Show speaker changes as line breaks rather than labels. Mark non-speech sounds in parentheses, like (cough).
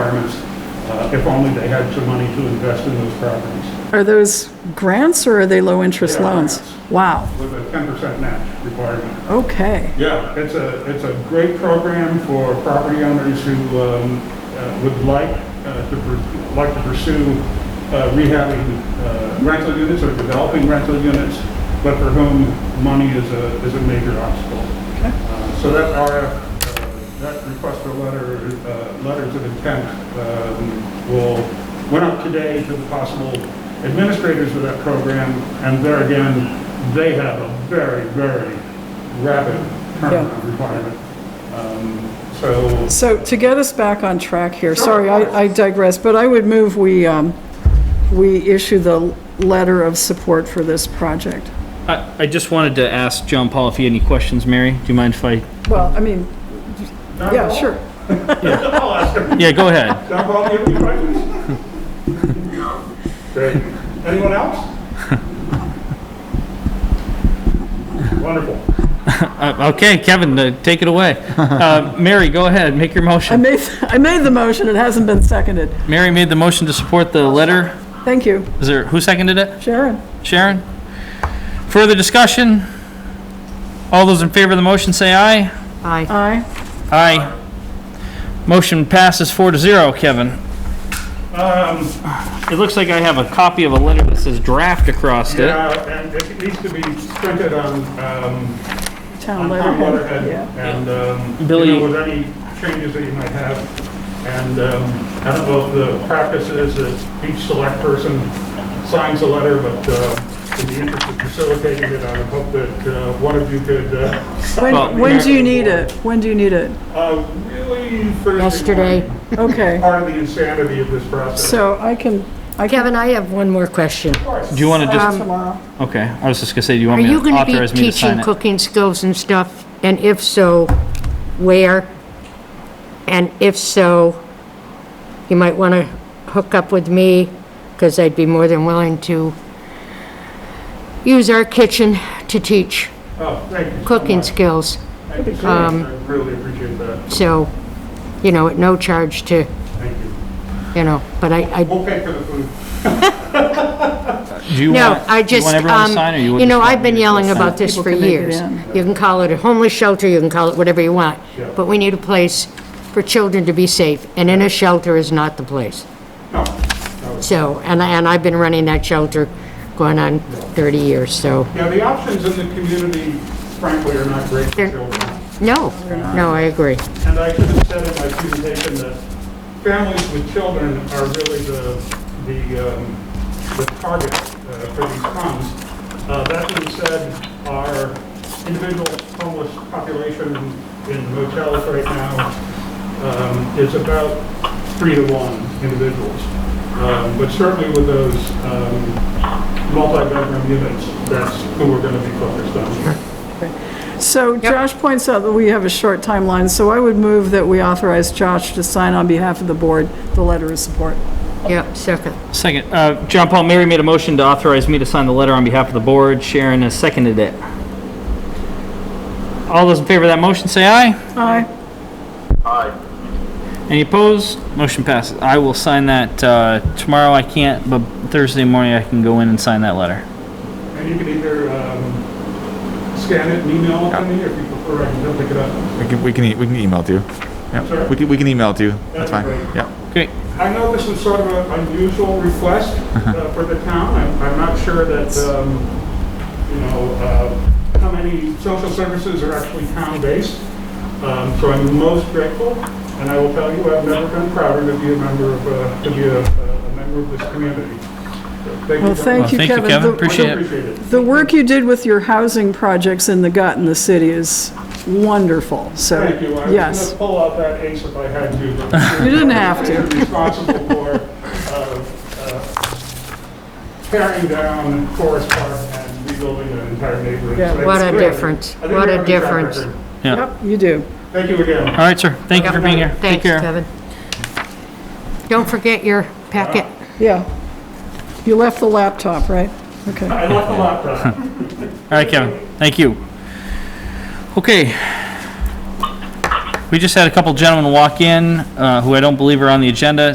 uh, if only they had some money to invest in those properties
Are those grants or are they low-interest
They are
loans?
grants.
Wow,
with a 10% match requirement.
okay.
Yeah, it's a, it's a great program for property owners who um, uh, would like uh, to, pur- like to pursue uh, rehabbing uh, rental units or developing rental units, but for whom money is a, is a major obstacle. Uh, So that RF, uh, that request for letter, uh, letters of intent um, will, went up today to the possible administrators of that program, and there again, they have a very, very rapid turnaround requirement. Um, So,
So to get us back on track here, sorry, I I digress, but I would move we, um, we issue the letter of support for this project.
I, I just wanted to ask John Paul if he had any questions, Mary. Do you mind if I?
Well, I mean, yeah,
(laughs)
sure.
I'll ask them.
Yeah, go
(laughs)
ahead.
John Paul, do you have any
(laughs)
questions? Great. Anyone else? Wonderful.
Uh, okay, Kevin, uh, take it away. Uh, Mary, go ahead, make your
I
motion.
made, I made the motion, it hasn't been seconded.
Mary made the motion to support the letter.
Thank you,
Is there, who seconded it?
Sharon.
Sharon? Further discussion? All those in favor of the motion say aye.
Aye.
Aye.
Aye. Motion passes four to zero, Kevin.
Um,
It looks like I have a copy of a letter that says draft across it.
Yeah, and it needs to be printed on, um, on town
Town letterhead.
letterhead,
Yeah.
and, um,
Billy-
you know, with any changes that you might have. And, um, I don't know if the practice is that each select person signs a letter, but, uh, in the interest of facilitating it, I would hope that, uh, one of you could, uh,
Well-
When, when do you need it? When do you need it?
uh, really Thursday
Yesterday.
morning,
Okay,
Part of the insanity of this process.
so I can, um, I can.
Kevin, I have one more question.
Of course.
Do you want to just,
Tomorrow.
okay, I was just gonna say, do you
Um, Are
want me to
you going to be
authorize me to sign
teaching
it?
cooking skills and stuff? And if so, where? And if so, you might want to hook up with me, because I'd be more than willing to use our kitchen to teach
Oh, thank you so
cooking
much.
skills.
Thank you so
um,
much. I really appreciate that,
So, you know, at no charge to,
thank you.
you know, but I, I
We'll pay for the food.
Do you
No,
want-
I
do you
just,
want everyone to sign,
um,
or you
you
would
know,
just want
I've been
me to
yelling
sign?
about this for
People can make it
years.
in.
You can call it a homeless shelter, you can call it whatever you want,
Yeah.
but we need a place for children to be safe, and in a shelter is not the place.
No,
So, and, I- and I've been running that shelter going on 30 years, so,
yeah, the options in the community frankly are not great for
They're-
children.
no, no, I agree.
And I should have said in my presentation that families with children are really the, the, um, the target uh, for these funds. Uh, That being said, our individual homeless population in motels right now um, is about three to one individuals. Um, But certainly with those um, multi-bedroom units, that's who we're going to be focused on.
So Josh points out that we have a short timeline, so I would move that we authorize Josh to sign on behalf of the board the letter of support.
Yep, second.
Second, uh, John Paul, Mary made a motion to authorize me to sign the letter on behalf of the board. Sharon has seconded it. All those in favor of that motion, say aye.
Aye.
Any opposed? Motion passes. I will sign that, uh, tomorrow I can't, but Thursday morning I can go in and sign that letter.
And you can either um, scan it and email it to me, if you prefer, I can go pick it up.
We can, we can, e- we can email it to you.
Sure.
Yeah, we can, we can email it to you. That's fine.
That'd be great.
Yeah.
Great.
I know this is sort of an unusual request
Uh-huh.
uh, for the town. I'm- I'm not sure that, um, you know, uh, how many social services are actually town-based. Um, So I'm most grateful, and I will tell you, I've never been prouder to be a member of, uh, to be a a member of this community. So Thank you.
Well,
very much.
thank you,
Well, thank you,
Kevin.
Kevin.
The-
Appreciate it.
Appreciate it.
The work you did with your housing projects in the gut in the city is wonderful, so,
Thank you. I was going
yes.
to pull out that ace if I had to.
(laughs) You didn't have to.
I'm Responsible for uh, uh, tearing down Forest Park and rebuilding an entire neighborhood.
Yeah.
So it's
What a
really-
difference.
I think
What
we
a
have track
difference.
record.
Yeah.
Yep, you do.
Thank you again.
All right, sir. Thank you for being here. Take
Thanks,
care.
Kevin. Don't forget your packet.
Yeah. You left the laptop, right? Okay.
I left the laptop.
All right, Kevin, thank you. Okay. We just had a couple gentlemen walk in, uh, who I don't believe are on the agenda.